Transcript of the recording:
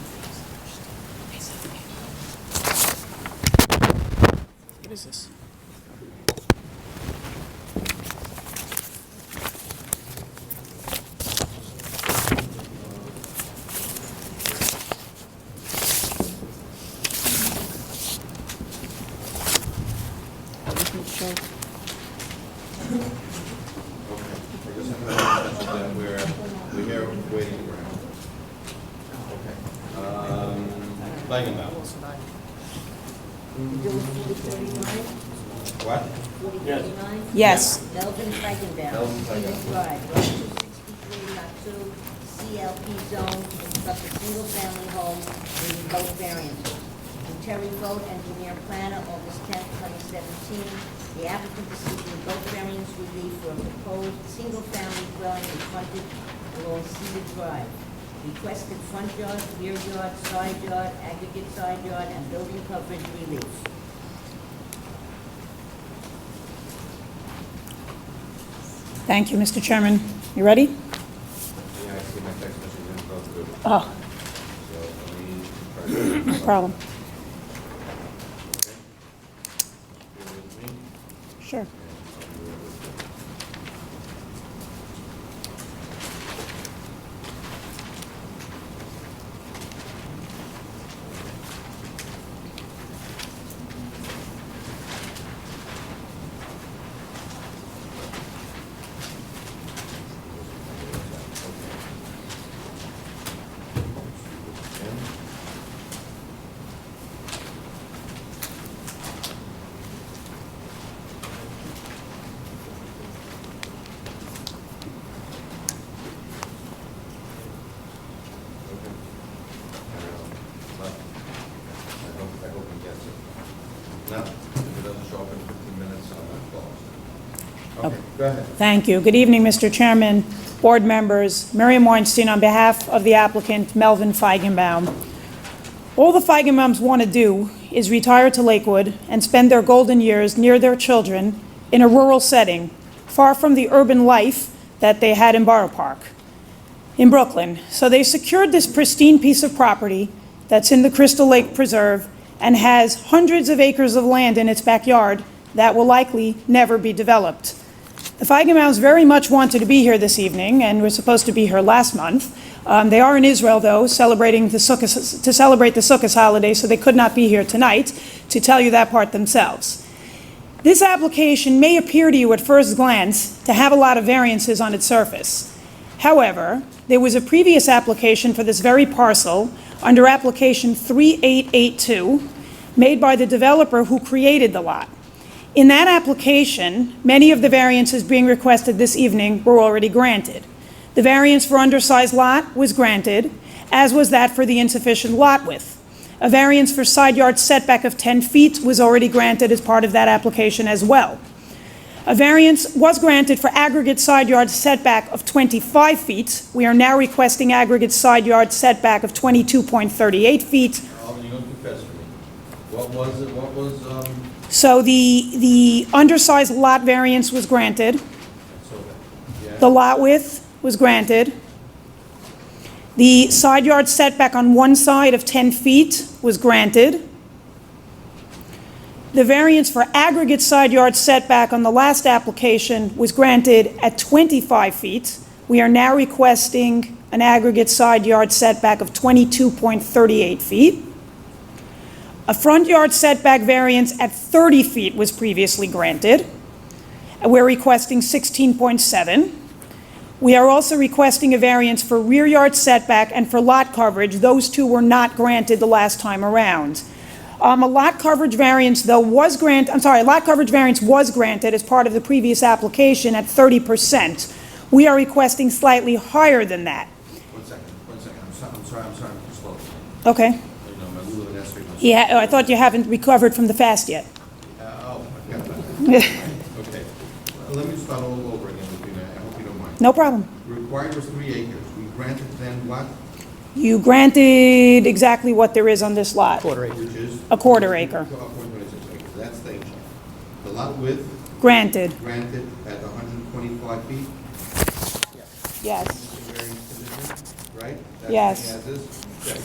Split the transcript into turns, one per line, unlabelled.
What is this? Doesn't show.
Okay, I guess I'm gonna mention that we're, we're here waiting for him. Okay. Um, Langenbaum. What?
Yes.
Yes.
Melvin Feigenbaum.
Melvin Feigenbaum.
Edith Drive, one two six three lot two, CLP zone, construct a single-family home, meeting both variances. And Terry Vogt, engineer planner, August tenth, twenty seventeen, the applicant is seeking both variance relief for a proposed single-family dwelling in frontage along Cedar Drive. Requested front yard, rear yard, side yard, aggregate side yard, and building coverage relief.
Thank you, Mr. Chairman. You ready?
Yeah, I see my text message didn't go through,
Oh,
so let me.
no problem.
Okay. Bear with me.
Sure.
Okay. Okay. I hope, I hope he gets it. No, if it doesn't show up in 15 minutes, I'm not closed. Okay, go ahead.
Thank you. Good evening, Mr. Chairman, board members. Miriam Weinstein on behalf of the applicant, Melvin Feigenbaum. All the Feigenbaums want to do is retire to Lakewood and spend their golden years near their children in a rural setting, far from the urban life that they had in Borough Park, in Brooklyn. So they secured this pristine piece of property that's in the Crystal Lake Preserve and has hundreds of acres of land in its backyard that will likely never be developed. The Feigenbaums very much wanted to be here this evening and were supposed to be here last month. Um, they are in Israel, though, celebrating the Sukkot, to celebrate the Sukkot holiday, so they could not be here tonight to tell you that part themselves. This application may appear to you at first glance to have a lot of variances on its surface. However, there was a previous application for this very parcel under application 3882, made by the developer who created the lot. In that application, many of the variances being requested this evening were already granted. The variance for undersized lot was granted, as was that for the insufficient lot width. A variance for side yard setback of 10 feet was already granted as part of that application as well. A variance was granted for aggregate side yard setback of 25 feet. We are now requesting aggregate side yard setback of 22.38 feet,
Alden, you're gonna confess to me. What was it, what was, um,
so the, the undersized lot variance was granted.
so, yeah?
The lot width was granted. The side yard setback on one side of 10 feet was granted. The variance for aggregate side yard setback on the last application was granted at 25 feet. We are now requesting an aggregate side yard setback of 22.38 feet. A front yard setback variance at 30 feet was previously granted. We're requesting 16.7. We are also requesting a variance for rear yard setback and for lot coverage. Those two were not granted the last time around. Um, A lot coverage variance, though, was grant, I'm sorry, a lot coverage variance was granted as part of the previous application at 30%. We are requesting slightly higher than that.
One second, one second, I'm sorry, I'm sorry, I'm sorry, I'm slow.
Okay?
You know, my Lulu and Esther.
Yeah, oh, I thought you haven't recovered from the fast yet.
Uh, oh, I forgot about that. Okay, Uh, let me start all over again, Lupina, I hope you don't mind.
No problem.
Required was three acres, we granted then what?
You granted exactly what there is on this lot.
Which is?
A quarter acre.
A quarter acre, that's the acre. The lot width
Granted.
granted at hundred and twenty-five feet,
Yes.
variance condition, right? That's
Yes.
the as-is.